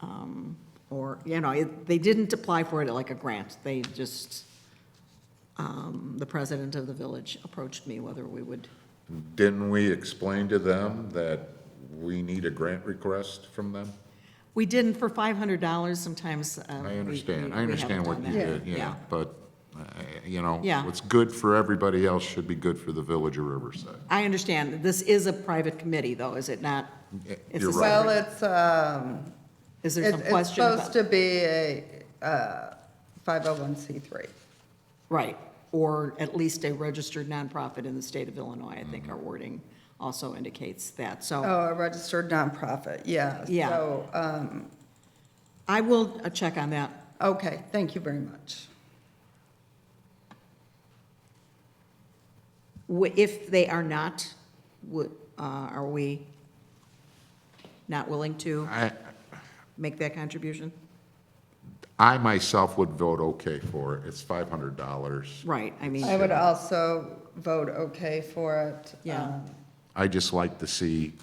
um, or, you know, it- they didn't apply for it like a grant. They just, um, the president of the village approached me whether we would, Didn't we explain to them that we need a grant request from them? we didn't for $500 sometimes. uh, we- I we- understand, I we understand haven't what you done that. did, yeah, but, uh, you know, Yeah. what's good for everybody else should be good for the village of Riverside. I understand. This is a private committee, though, is it not? Y- It's you're a separate- right. Well, it's, um, Is there it's some it's question supposed about? to be a uh, 501c3. Right, or at least a registered nonprofit in the state of Illinois, I think Mm-hmm. our wording also indicates that. So Oh, a registered nonprofit, yeah. Yeah. So, um, I will uh, check on that. okay, thank you very much. W- If they are not, would, uh, are we not willing to I, make that contribution? I myself would vote okay for it, it's five hundred dollars. Right, I mean, I would also vote okay for it. Yeah. um, I just like to see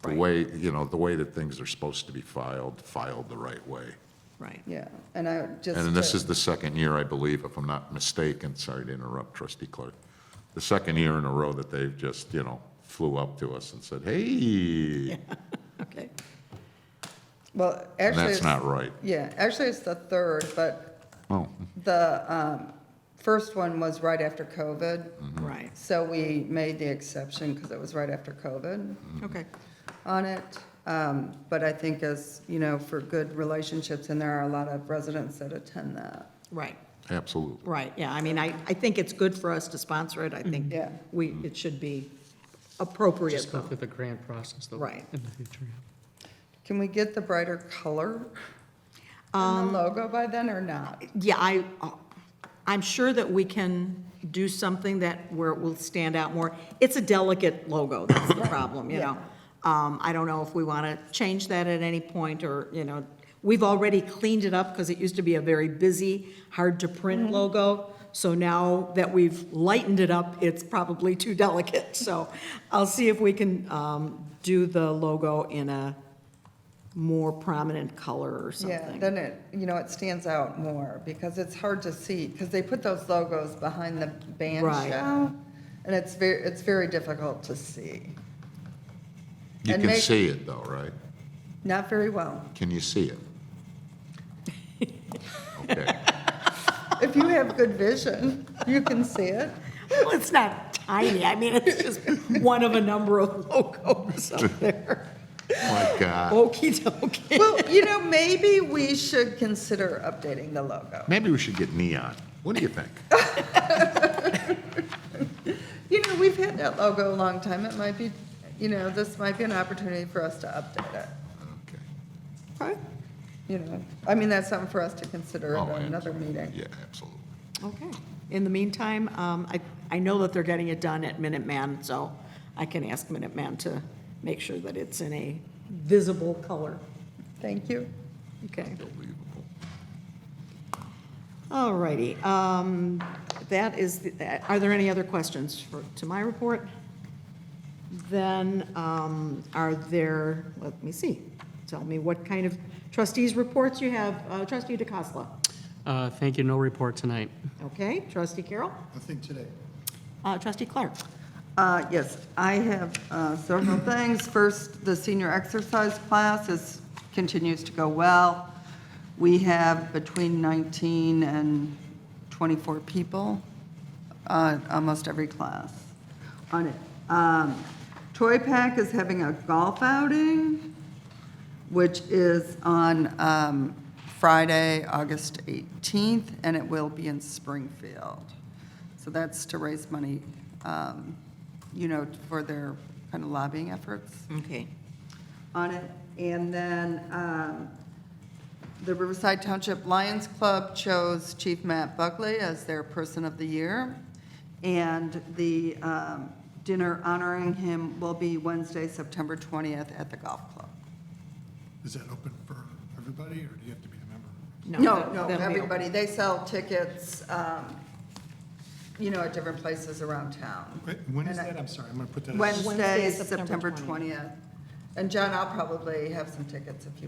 the Right. way, you know, the way that things are supposed to be filed, filed the right way. right. Yeah, and I would just. And this is the second year, I believe, if I'm not mistaken, sorry to interrupt, trustee Clark, the second year in a row that they've just, you know, flew up to us and said, hey, Okay, Well, and actually. that's it's- not right. Yeah, actually, it's the third, but Oh, the um, first one was right after COVID. Hmm. Mm-hmm. right, So we made the exception because it was right after COVID Mm-hmm. okay, on it. Um, But I think as, you know, for good relationships, and there are a lot of residents that attend that. right, absolutely. right, yeah, I mean, I, I think it's good for us to sponsor it, I think Yeah. we, it should be appropriate, Just go though. through the grant process though. Right. In the future. Can we get the brighter color on Um, the logo by then or not? Yeah, I, uh, I'm sure that we can do something that, where it will stand out more. It's a delicate logo, that's the problem, you know? Um, I don't know if we want to change that at any point, or, you know, we've already cleaned it up, because it used to be a very busy, hard-to-print Mm-hmm. logo, so now that we've lightened it up, it's probably too delicate, so I'll see if we can um, do the logo in a more prominent color or Yeah, something. then it, you know, it stands out more because it's hard to see, because they put those logos behind the band Right. show. And it's very, it's very difficult to see. You And can make- see it though, right? Not very well. Can you see it? Okay, If you have good vision, you can see it. Well, it's not tiny, I mean, it's just one of a number of logos up there. my God. Okey dokey. Well, you know, maybe we should consider updating the logo. Maybe we should get neon. What do you think? Oh. You know, we've had that logo a long time. It might be, you know, this might be an opportunity for us to update it. Okay. Okay. You know, I mean, that's something for us to consider Oh, at and- another meeting. Yeah, absolutely. Okay. In the meantime, um, I, I know that they're getting it done at Minuteman, so I can ask Minuteman to make sure that it's in a visible color. Thank you. Okay. Unbelievable. All righty. Um, that is, the- are there any other questions for, to my report? Then, um, are there, let me see, tell me what kind of trustees' reports you have. Uh, Trustee DeCosta, Uh, Thank you, no report tonight. okay? Trustee Carroll? Nothing today. Uh, Trustee Clark? Uh, Yes, I have uh, several things. First, the senior exercise class is, continues to go well. We have between 19 and 24 people, uh, almost every class on it. Um, Toy Pack is having a golf outing, which is on um, Friday, August 18th, and it will be in Springfield. So that's to raise money, um, you know, for their kind of lobbying efforts Okay. on it. And then um, the Riverside Township Lions Club chose Chief Matt Buckley as their Person of the Year. And the um, dinner honoring him will be Wednesday, September 20th at the golf club. Is that open for everybody, or do you have to be a member? No, that- no, that'll be everybody, they sell tickets, um, you know, at different places around town. Wait, When is And I- that? I'm sorry, I'm going to put that. Wednesday, Wednesday, September September 20th. And John, I'll probably have some tickets if you